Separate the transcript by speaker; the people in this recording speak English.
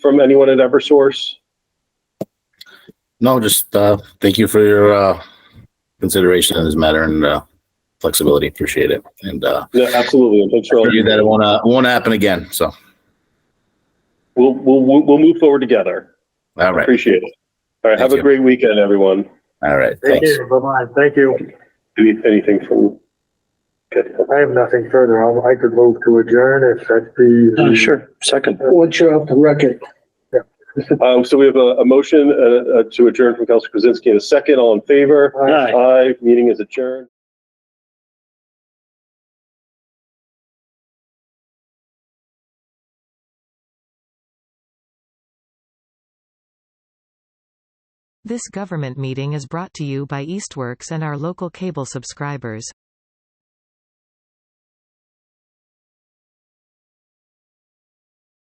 Speaker 1: from anyone at Eversource?
Speaker 2: No, just, uh, thank you for your, uh, consideration in this matter and, uh, flexibility. Appreciate it. And, uh,
Speaker 1: No, absolutely. and Thanks for all
Speaker 2: you that it won't, uh, won't happen again. So,
Speaker 1: We'll, we'll, we'll we'll move forward together.
Speaker 2: all right.
Speaker 1: Appreciate it. All right. Have
Speaker 2: Thank
Speaker 1: a
Speaker 2: you.
Speaker 1: great weekend, everyone.
Speaker 2: All right.
Speaker 3: Thank
Speaker 2: Thanks.
Speaker 3: you. Bye-bye. Thank you.
Speaker 1: Any- Anything from? Okay.
Speaker 3: I have nothing further. I'll- I could move to adjourn if that'd be.
Speaker 4: Uh, Sure, second.
Speaker 5: What's your off the record?
Speaker 1: Um, so we have a, a motion, uh, uh, to adjourn from Council Krasinski in a second. All in favor?
Speaker 3: Aye.
Speaker 4: Aye.
Speaker 1: Aye. Meeting is adjourned.
Speaker 6: This government meeting is brought to you by Eastworks and our local cable subscribers.